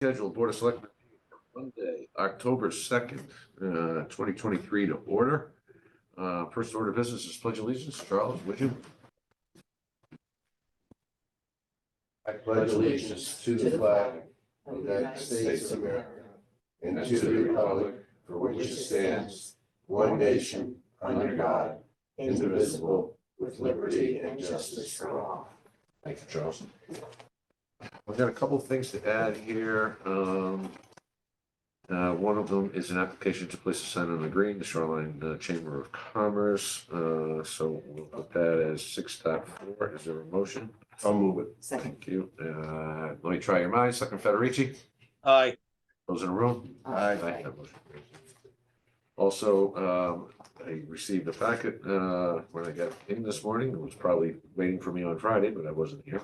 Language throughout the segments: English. scheduled Board of Selectmen Monday, October second, uh, twenty twenty-three to order. Uh, first order of business is pledge allegiance. Charles, would you? I pledge allegiance to the flag of the United States of America and to the republic for which it stands, one nation, under God, indivisible, with liberty and justice for all. Thank you, Charles. I've got a couple of things to add here. Um, uh, one of them is an application to place a sign on the green, the Shoreline uh, Chamber of Commerce. Uh, so we'll put that as six dot four. Is there a motion? I'll move it. Second, Thank you. Uh, let me try your minds. Second Federici? Aye, Those in the room? Aye. That motion carries. Also, um, I received a packet, uh, when I got in this morning, it was probably waiting for me on Friday, but I wasn't here.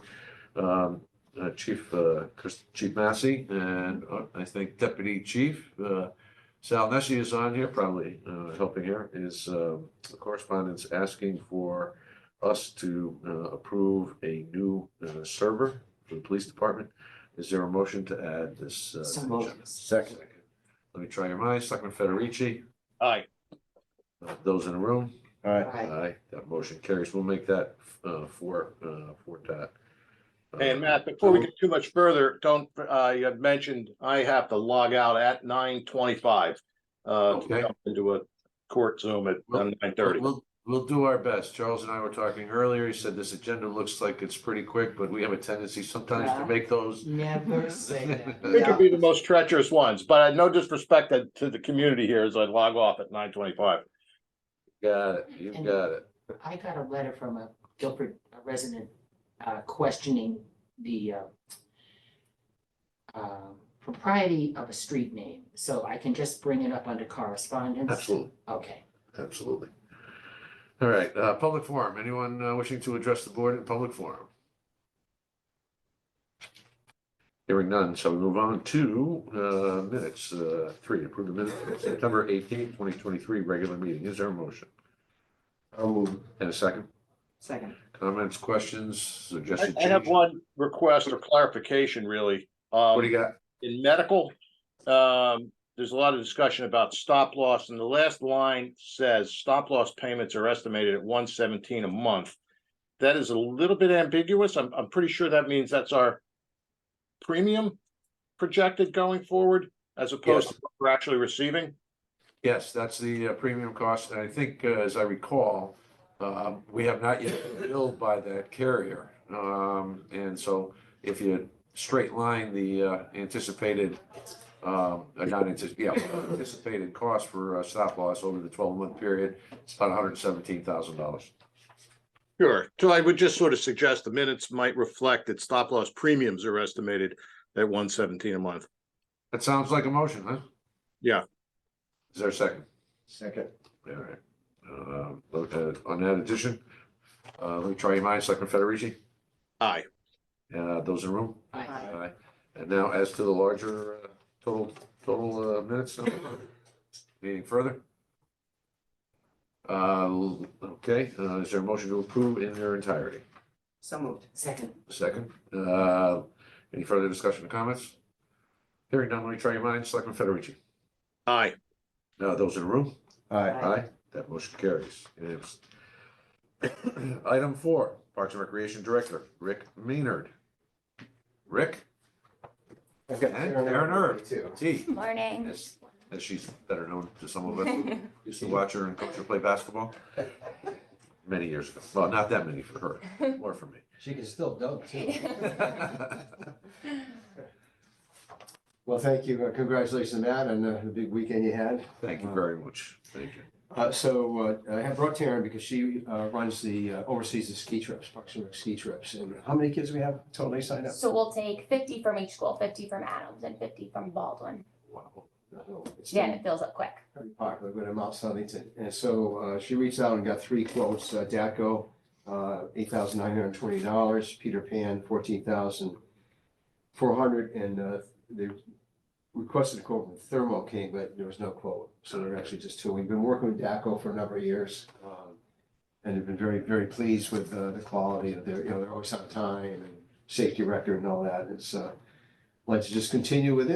Um, uh, Chief, uh, Chris, Chief Massey, and uh, I think Deputy Chief, uh, Sal Nessie is on here, probably, uh, helping here, is, um, correspondence asking for us to, uh, approve a new, uh, server for the police department. Is there a motion to add this? uh, So moved. agenda? Second. Let me try your minds. Selectman Federici, aye, uh, those in the room? aye, That motion carries. We'll make that uh, four, uh, four dot. uh, and Matt, before we get too much further, don't, uh, you had mentioned I have to log out at nine twenty-five. Uh, to Okay. jump into a court Zoom at Well, nine thirty. We'll, we'll do our best. Charles and I were talking earlier. He said this agenda looks like it's pretty quick, but we have a tendency sometimes to Yeah. make those. never say that. It could Yeah. be the most treacherous ones, but I no disrespect to- to the community here as I log off at nine twenty-five. Got it. You've And- got it. I got a letter from a Guilford resident uh, questioning the uh, um, propriety of a street name, so I can just bring it up under correspondence? Absolutely. Okay, Absolutely. All right, uh, public forum. Anyone uh, wishing to address the board in public forum? Hearing none, shall we move on to, uh, minutes, uh, three, approve the minutes for September eighteenth, twenty twenty-three, regular meeting. Is there a motion? I'll move it. And a second? second. Comments, questions, I suggested I have change? one request or clarification, really. Um, What do you got? in medical, um, there's a lot of discussion about stop loss, and the last line says stop loss payments are estimated at one seventeen a month. That is a little bit ambiguous. I'm, I'm pretty sure that means that's our premium projected going forward as opposed to what we're actually receiving. Yes, that's the uh, premium cost, and I think, uh, as I recall, um, we have not yet been billed by that carrier. Um, and so if you straight line the uh, anticipated, um, uh, not antici- yeah, anticipated cost for uh, stop loss over the twelve month period, it's about hundred and seventeen thousand dollars. Sure. So I would just sort of suggest the minutes might reflect that stop loss premiums are estimated at one seventeen a month. That sounds like a motion, huh? Yeah. Is there a second? Second. All right. Um, uh, on that addition, uh, let me try your minds, Selectman Federici, Aye. uh, those in the room? Aye. Aye. And now as to the larger uh, total, total uh, minutes, uh, meeting further? Uh, l- Okay, uh, is there a motion to approve in their entirety? So moved. Second, Second, Uh, any further discussion or comments? Hearing none, let me try your minds. Selectman Federici? Aye. Now, those in the room? Aye. Aye. Aye, that motion carries. Unanimous. Item four, Parks and Recreation Director, Rick Maynard. Rick, I've got And Karen Karen Irving Irving. too. T, Morning. as, as she's better known to some of us. Used to watch her and coach her play basketball many years ago. Well, not that many for her, more for me. She can still dunk too. Well, thank you. Uh, Congratulations, Matt, on uh, the big weekend you had. Thank you very much. Thank you. Uh, so uh, I have brought Taryn because she uh, runs the uh, oversees the ski trips, Parks and Rec ski trips. And how many kids we have totally signed up? So we'll take fifty from each school, fifty from Adams and fifty from Baldwin. Wow. No, it's Yeah, and been it fills up quick. Very popular, but in Mount Sunnyton. And so uh, she reached out and got three quotes, uh, DACO, uh, eight thousand nine hundred and twenty dollars, Peter Pan, fourteen thousand four hundred, and uh, they requested a quote from Thermo King, but there was no quote. So they're actually just two. We've been working with DACO for a number of years. um, And have been very, very pleased with uh, the quality of their, you know, they're always on time and safety record and all that. It's uh, Like to just continue with it.